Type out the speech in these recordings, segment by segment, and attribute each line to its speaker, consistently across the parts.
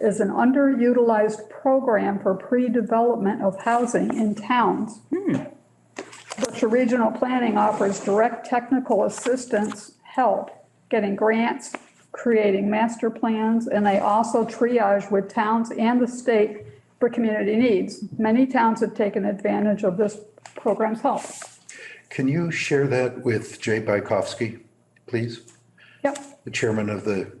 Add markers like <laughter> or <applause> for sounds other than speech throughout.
Speaker 1: is an underutilized program for pre-development of housing in towns.
Speaker 2: Hmm.
Speaker 1: Berkshire Regional Planning offers direct technical assistance, help, getting grants, creating master plans, and they also triage with towns and the state for community needs. Many towns have taken advantage of this program's help.
Speaker 2: Can you share that with Jay Bykowski, please?
Speaker 1: Yep.
Speaker 2: The chairman of the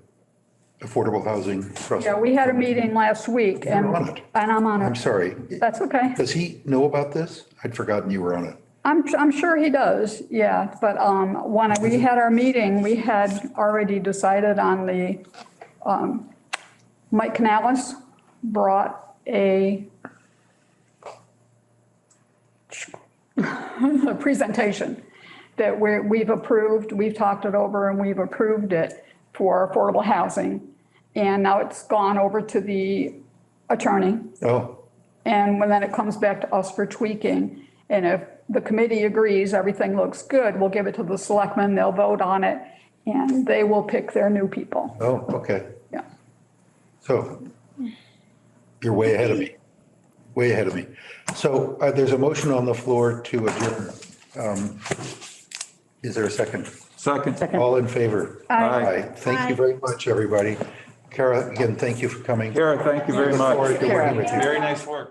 Speaker 2: Affordable Housing Trust.
Speaker 1: Yeah, we had a meeting last week and,
Speaker 2: You're on it.
Speaker 1: and I'm on
Speaker 2: I'm
Speaker 1: it.
Speaker 2: sorry.
Speaker 1: That's okay.
Speaker 2: Does he know about this? I'd forgotten you were on it.
Speaker 1: I'm, I'm sure he does, yeah. But um, when we had our meeting, we had already decided on the, um, Mike Canales brought a <laughs> a presentation that we're, we've approved, we've talked it over and we've approved it for affordable housing. And now it's gone over to the attorney.
Speaker 2: Oh,
Speaker 1: And when then it comes back to us for tweaking. And if the committee agrees, everything looks good, we'll give it to the selectmen, they'll vote on it, and they will pick their new people.
Speaker 2: oh, okay.
Speaker 1: Yeah.
Speaker 2: So you're way ahead of me, way ahead of me. So uh, there's a motion on the floor to adjourn. Um, Is there a second?
Speaker 3: Second.
Speaker 2: All in favor?
Speaker 3: Aye.
Speaker 2: Thank you very much, everybody. Kara, again, thank you for coming.
Speaker 3: Kara, thank you very
Speaker 2: Look
Speaker 3: much.
Speaker 2: forward to working with you.
Speaker 3: Very nice work.